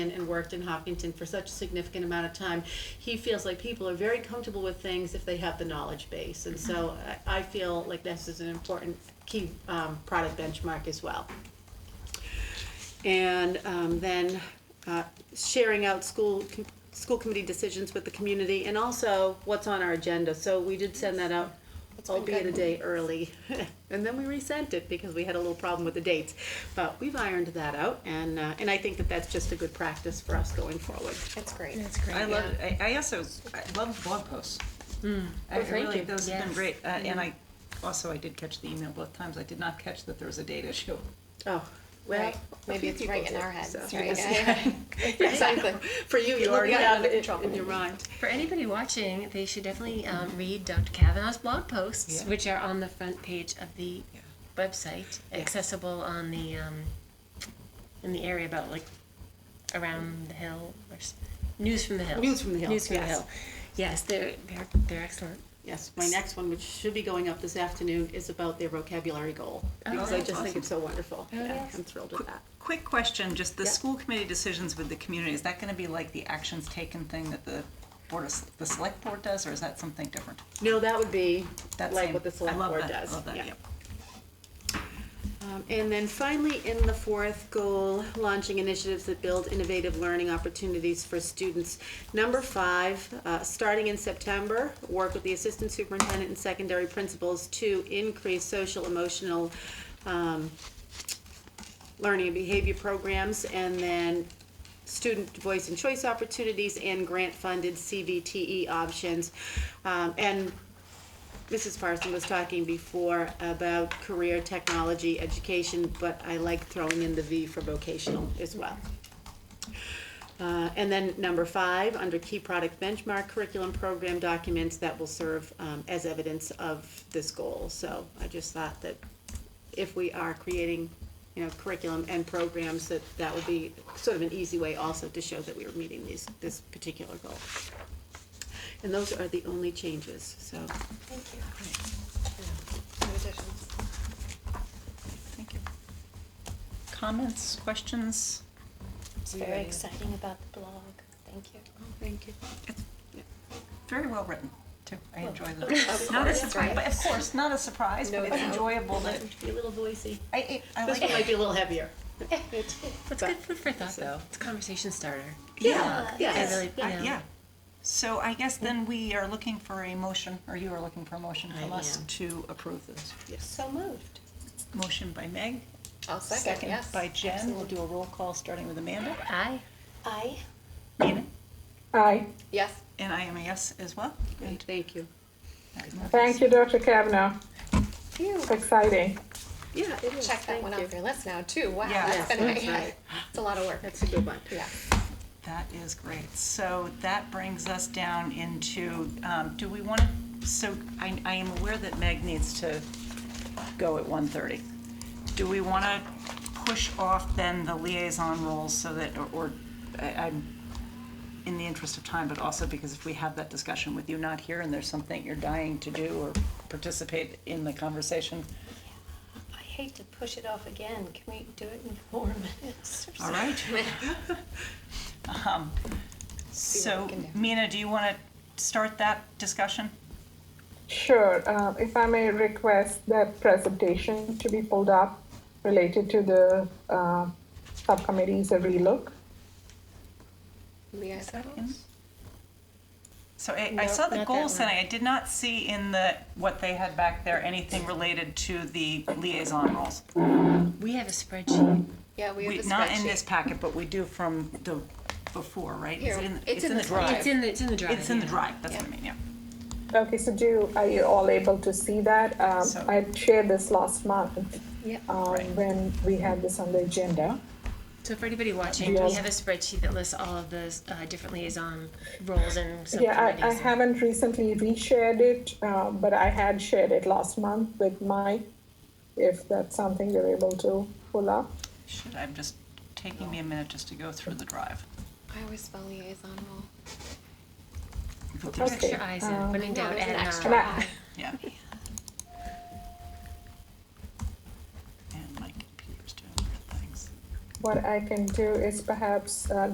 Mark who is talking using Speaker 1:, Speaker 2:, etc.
Speaker 1: and and worked in Hopkinton for such a significant amount of time, he feels like people are very comfortable with things if they have the knowledge base. And so I, I feel like this is an important key um, product benchmark as well. And um, then uh, sharing out school, com- school committee decisions with the community and also what's on our agenda. So we did send that out,
Speaker 2: been
Speaker 1: albeit a
Speaker 2: good.
Speaker 1: day early. And then we resent it because we had a little problem with the dates. But we've ironed that out and, uh, and I think that that's just a good practice for us going forward.
Speaker 2: That's great.
Speaker 3: That's great.
Speaker 4: I love, I, I also, I love blog posts. I
Speaker 3: Oh, thank
Speaker 4: really,
Speaker 3: you.
Speaker 4: those have been
Speaker 3: Yes.
Speaker 4: great, uh, and I, also, I did catch the email both times, I did not catch that there was a date issue.
Speaker 1: Oh, well,
Speaker 2: Right.
Speaker 1: a
Speaker 2: Maybe
Speaker 1: few
Speaker 2: it's right
Speaker 1: people
Speaker 2: in
Speaker 1: do,
Speaker 2: our heads,
Speaker 1: so-
Speaker 2: right? Yeah. Exactly.
Speaker 1: For you, you
Speaker 2: You'll
Speaker 1: already
Speaker 2: be out
Speaker 1: have
Speaker 2: under
Speaker 1: it
Speaker 2: control.
Speaker 1: in your mind.
Speaker 3: For anybody watching, they should definitely um, read Dr. Kavanaugh's blog posts,
Speaker 4: Yeah.
Speaker 3: which are on the front page of the
Speaker 4: Yeah.
Speaker 3: website, accessible on the um, in the area about like around the hill or s- news from the hill.
Speaker 1: News from the Hill,
Speaker 3: News from
Speaker 1: yes.
Speaker 3: the hill. Yes, they're they're they're excellent.
Speaker 1: Yes, my next one, which should be going up this afternoon, is about their vocabulary goal. Oh, Because I
Speaker 4: that's
Speaker 1: just think
Speaker 4: awesome.
Speaker 1: it's so wonderful.
Speaker 3: Oh,
Speaker 1: Yeah,
Speaker 3: yes.
Speaker 1: I'm thrilled with that.
Speaker 4: Quick question, just the
Speaker 1: Yeah.
Speaker 4: school committee decisions with the community, is that gonna be like the actions taken thing that the board, of s- the select board does, or is that something different?
Speaker 1: No, that would be
Speaker 4: That
Speaker 1: like
Speaker 4: same-
Speaker 1: what the
Speaker 4: I
Speaker 1: select
Speaker 4: love
Speaker 1: board
Speaker 4: that,
Speaker 1: does.
Speaker 4: I love that,
Speaker 1: Yeah.
Speaker 4: yep.
Speaker 1: Um, And then finally, in the fourth goal, launching initiatives that build innovative learning opportunities for students. Number five, uh, starting in September, work with the assistant superintendent and secondary principals to increase social emotional um, learning and behavior programs, and then student voice and choice opportunities and grant-funded CVTE E options. Um, And Mrs. Parson was talking before about career technology education, but I like throwing in the V for vocational as well. Uh, and then number five, under key product benchmark, curriculum program documents that will serve um, as evidence of this goal. So I just thought that if we are creating, you know, curriculum and programs, that that would be sort of an easy way also to show that we are meeting these, this particular goal. And those are the only changes, so.
Speaker 2: Thank you. No additions.
Speaker 4: Thank you. Comments, questions?
Speaker 2: It's very exciting about the blog. Thank you.
Speaker 1: Thank you.
Speaker 4: Very well written, too, I enjoy them.
Speaker 2: Of
Speaker 4: Not a
Speaker 2: course,
Speaker 4: surprise,
Speaker 2: right?
Speaker 4: but of course, not a surprise,
Speaker 2: No,
Speaker 4: but it's
Speaker 2: no.
Speaker 4: enjoyable that,
Speaker 1: Be a little voicey.
Speaker 4: I, I I
Speaker 1: This
Speaker 4: like.
Speaker 1: one might be a little heavier.
Speaker 3: That's
Speaker 1: But-
Speaker 3: good food for thought, though.
Speaker 1: so-
Speaker 3: It's a conversation starter.
Speaker 4: Yeah,
Speaker 2: Yeah.
Speaker 3: I really, you
Speaker 4: I-
Speaker 3: know,
Speaker 4: yeah. So I guess then we are looking for a motion, or you are looking for a motion from
Speaker 1: I
Speaker 4: us
Speaker 1: am.
Speaker 4: to approve this.
Speaker 2: So moved.
Speaker 4: Motion by Meg.
Speaker 2: I'll second, yes.
Speaker 4: by Jen. We'll do a roll call, starting with Amanda.
Speaker 3: I
Speaker 2: Aye.
Speaker 4: Nina.
Speaker 5: Aye.
Speaker 2: Yes.
Speaker 4: And I am a yes as well. Great.
Speaker 1: Thank you.
Speaker 5: Thank you, Dr. Kavanaugh.
Speaker 2: Phew.
Speaker 5: Exciting.
Speaker 1: Yeah, it is.
Speaker 2: Check that
Speaker 1: Thank
Speaker 2: one
Speaker 1: you.
Speaker 2: off your list now, too. Wow,
Speaker 4: Yeah.
Speaker 2: that's been,
Speaker 1: Yes, that's right.
Speaker 2: it's a lot of work.
Speaker 1: That's a good one.
Speaker 2: Yeah.
Speaker 4: That is great. So that brings us down into, um, do we want to, so I, I am aware that Meg needs to go at 1:30. Do we want to push off then the liaison roles so that, or- or, I- I'm, in the interest of time, but also because if we have that discussion with you not here and there's something you're dying to do or participate in the conversation,
Speaker 6: I hate to push it off again. Can we do it in four minutes or
Speaker 4: all
Speaker 6: something?
Speaker 4: right? Um, So,
Speaker 2: can do.
Speaker 4: Mina, do you want to start that discussion?
Speaker 5: Sure. Uh, if I may request that presentation to be pulled up related to the uh, subcommittees, a relook.
Speaker 2: Liaison.
Speaker 4: So I, I
Speaker 3: No,
Speaker 4: saw the
Speaker 3: not
Speaker 4: goal
Speaker 3: that
Speaker 4: setting. I did not see in the what they had back there anything related to the liaison roles.
Speaker 3: we have a spreadsheet.
Speaker 2: Yeah, we have
Speaker 4: We-
Speaker 2: a
Speaker 4: not in this
Speaker 2: spreadsheet.
Speaker 4: packet, but we do from the before, right? Is
Speaker 2: Here,
Speaker 4: it in,
Speaker 2: it's in the drive.
Speaker 3: It's in the it's in the drive.
Speaker 4: It's in the
Speaker 3: yeah.
Speaker 4: drive. That's
Speaker 2: Yeah.
Speaker 4: what I mean. Yeah.
Speaker 5: Okay, so do are you all able to see that? Um,
Speaker 4: So-
Speaker 5: I shared this last month um,
Speaker 4: Right.
Speaker 5: when we had this on the agenda.
Speaker 3: So for anybody watching, we
Speaker 5: Yes.
Speaker 3: have a spreadsheet that lists all of the uh, different liaison roles and subcommittees.
Speaker 5: Yeah, I, I
Speaker 3: and-
Speaker 5: haven't recently reshared it, uh, but I had shared it last month with Mike. If that's something you're able to pull up.
Speaker 4: Should I'm just taking me a minute just to go through the drive.
Speaker 2: I always spell liaison role.
Speaker 4: But there's-
Speaker 3: Put your eyes in. When in uh, doubt,
Speaker 2: there's
Speaker 3: add
Speaker 2: an
Speaker 3: an
Speaker 2: extra
Speaker 5: Nah.
Speaker 3: eye.
Speaker 2: I.
Speaker 4: Yeah. And my computer's doing weird things.
Speaker 5: What I can do is perhaps uh,